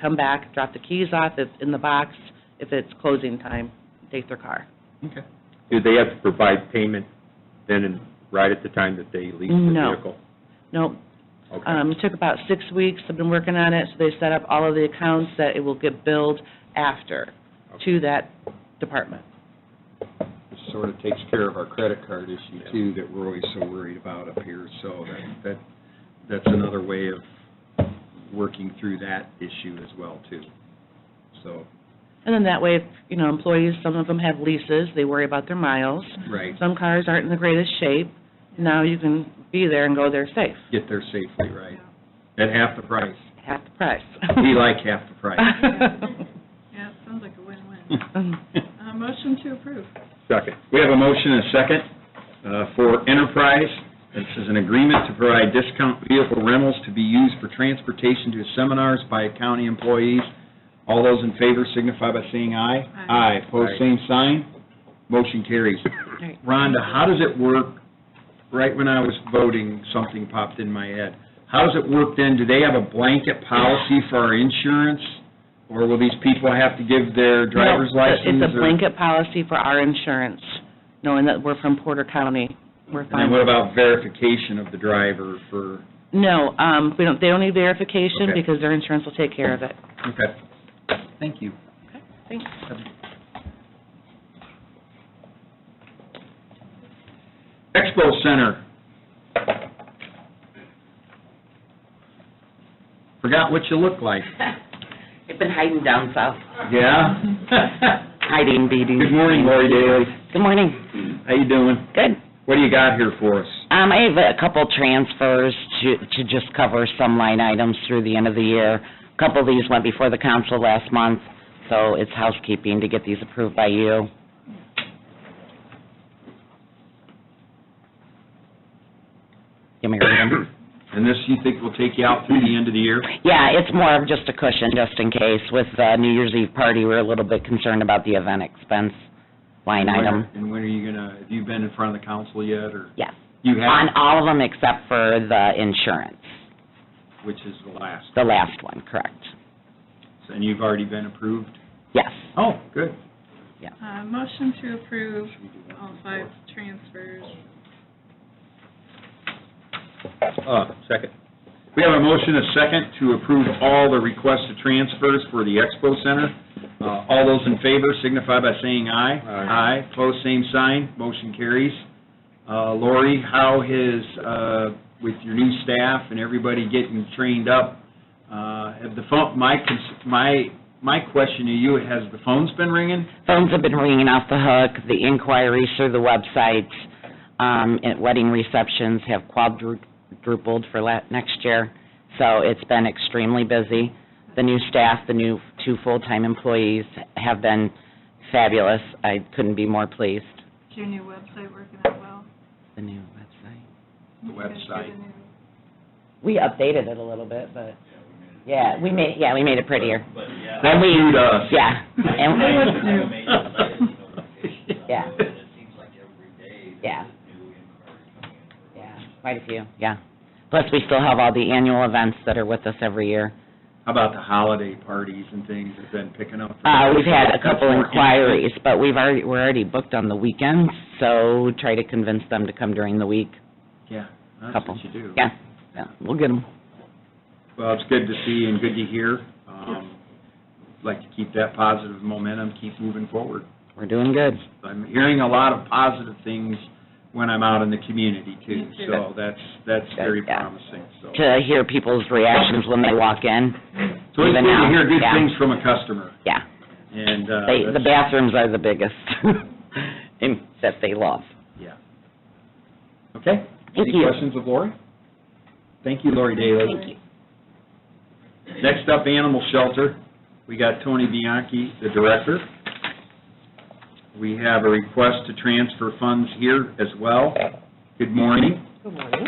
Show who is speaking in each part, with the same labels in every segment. Speaker 1: come back, drop the keys off, it's in the box, if it's closing time, take their car.
Speaker 2: Okay.
Speaker 3: Do they have to provide payment then and right at the time that they lease the
Speaker 1: No.
Speaker 3: vehicle?
Speaker 1: Nope,
Speaker 3: Okay.
Speaker 1: Um, took about six weeks, I've been working on it, so they set up all of the accounts that it will get billed after to that department.
Speaker 2: Which sort of takes care of our credit card issue too, that we're always so worried about up here. So that, that, that's another way of working through that issue as well too. So,
Speaker 1: And then that way, if, you know, employees, some of them have leases, they worry about their miles.
Speaker 2: right,
Speaker 1: Some cars aren't in the greatest shape, now you can be there and go there safe,
Speaker 2: get there safely, right? At half the price.
Speaker 1: half the price.
Speaker 2: We like half the price.
Speaker 4: Yeah, it sounds like a win-win. Uh, motion to approve.
Speaker 3: Second.
Speaker 2: We have a motion and a second uh, for Enterprise. This is an agreement to provide discount vehicle rentals to be used for transportation to seminars by county employees. All those in favor signify by saying aye.
Speaker 4: Aye.
Speaker 2: Aye, pose same sign, motion carries. Rhonda, how does it work, right when I was voting, something popped in my head. How does it work then? Do they have a blanket policy for our insurance? Or will these people have to give their driver's
Speaker 1: No, it's a-
Speaker 2: license?
Speaker 1: It's a
Speaker 2: or-
Speaker 1: blanket policy for our insurance, knowing that we're from Porter County, we're
Speaker 2: And then
Speaker 1: fine.
Speaker 2: what about verification of the driver for,
Speaker 1: No, um, we don't, they don't need verification
Speaker 2: Okay.
Speaker 1: because their insurance will take care of it.
Speaker 2: okay. Thank you.
Speaker 1: Thanks.
Speaker 2: Expo Center. Forgot what you look like.
Speaker 5: I've been hiding down south,
Speaker 2: Yeah?
Speaker 5: hiding, beating.
Speaker 2: Good morning, Lori Daly.
Speaker 5: Good morning.
Speaker 2: How you doing?
Speaker 5: Good.
Speaker 2: What do you got here for us?
Speaker 5: Um, I have a couple transfers to, to just cover some line items through the end of the year. A Couple of these went before the council last month, so it's housekeeping to get these approved by you. Give me a read 'em?
Speaker 2: And this, you think will take you out through the end of the year?
Speaker 5: Yeah, it's more of just a cushion, just in case. With the New Year's Eve party, we we're a little bit concerned about the event expense line item.
Speaker 2: And when are you gonna, have you been in front of the council yet, or?
Speaker 5: Yes.
Speaker 2: You
Speaker 5: On
Speaker 2: have,
Speaker 5: all of them except for the insurance,
Speaker 2: which is the last,
Speaker 5: the last one, correct?
Speaker 2: and you've already been approved?
Speaker 5: Yes.
Speaker 2: Oh, good.
Speaker 4: Uh, motion to approve all five transfers.
Speaker 3: Uh, second.
Speaker 2: We have a motion, a second, to approve all the requests to transfers for the Expo Center. Uh, All those in favor signify by saying aye.
Speaker 3: Aye.
Speaker 2: Aye, pose same sign, motion carries. Uh, Lori, how has, uh, with your new staff and everybody getting trained up, uh, have the phone, my, cons- my, my question to you, has the phones been ringing?
Speaker 5: Phones have been ringing off the hook, the inquiries through the websites, um, and wedding receptions have quadrupled for la- next year, so it's been extremely busy. The new staff, the new two full-time employees have been fabulous. I couldn't be more pleased.
Speaker 4: Is your new website working out well?
Speaker 5: The new website.
Speaker 2: The
Speaker 4: You guys did a
Speaker 2: website.
Speaker 4: new-
Speaker 5: We updated it a little bit, but, yeah, we made, yeah, we made it prettier.
Speaker 6: But yeah.
Speaker 5: And we-
Speaker 2: Suit
Speaker 3: uh,
Speaker 2: us.
Speaker 5: Yeah, and,
Speaker 6: I made it like, you know, notifications
Speaker 5: Yeah.
Speaker 6: on it, and It seems like every day
Speaker 5: Yeah.
Speaker 6: there's a new inquiry coming in. for
Speaker 5: yeah,
Speaker 6: us.
Speaker 5: quite a few, yeah. Plus, we still have all the annual events that are with us every year.
Speaker 2: How about the holiday parties and things have been picking up?
Speaker 5: Uh, we've had a couple inquiries, but we've already, we're already booked on the weekends, so try to convince them to come during the week.
Speaker 2: Yeah, that's
Speaker 5: Couple.
Speaker 2: what you do.
Speaker 5: Yeah, yeah, we'll get them.
Speaker 2: Well, it's good to see and good to hear. Um, Like to keep that positive momentum, keep moving forward.
Speaker 5: We're doing good.
Speaker 2: I'm hearing a lot of positive things when I'm out in the community too.
Speaker 4: Me too.
Speaker 2: So that's, that's
Speaker 5: Good,
Speaker 2: very
Speaker 5: yeah.
Speaker 2: promising, so.
Speaker 5: To hear people's reactions when they walk in,
Speaker 2: So it's good
Speaker 5: even
Speaker 2: to
Speaker 5: now,
Speaker 2: hear good
Speaker 5: yeah.
Speaker 2: things from a customer
Speaker 5: yeah.
Speaker 2: and, uh.
Speaker 5: They, the
Speaker 2: that's-
Speaker 5: bathrooms are the biggest, and- that they love.
Speaker 2: Yeah. Okay.
Speaker 5: Thank
Speaker 2: Any
Speaker 5: you.
Speaker 2: questions of Lori? Thank you, Lori Daly.
Speaker 5: Thank you.
Speaker 2: Next up, Animal Shelter. We got Tony Bianchi, the director. We have a request to transfer funds here as well. Good morning.
Speaker 7: Good morning.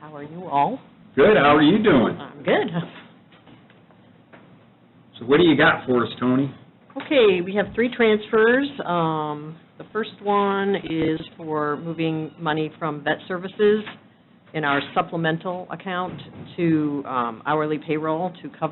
Speaker 7: How are you all?
Speaker 2: Good, how are you doing?
Speaker 7: I'm good.
Speaker 2: So what do you got for us, Tony?
Speaker 7: Okay, we have three transfers. Um, The first one is for moving money from vet services in our supplemental account to um, hourly payroll to cover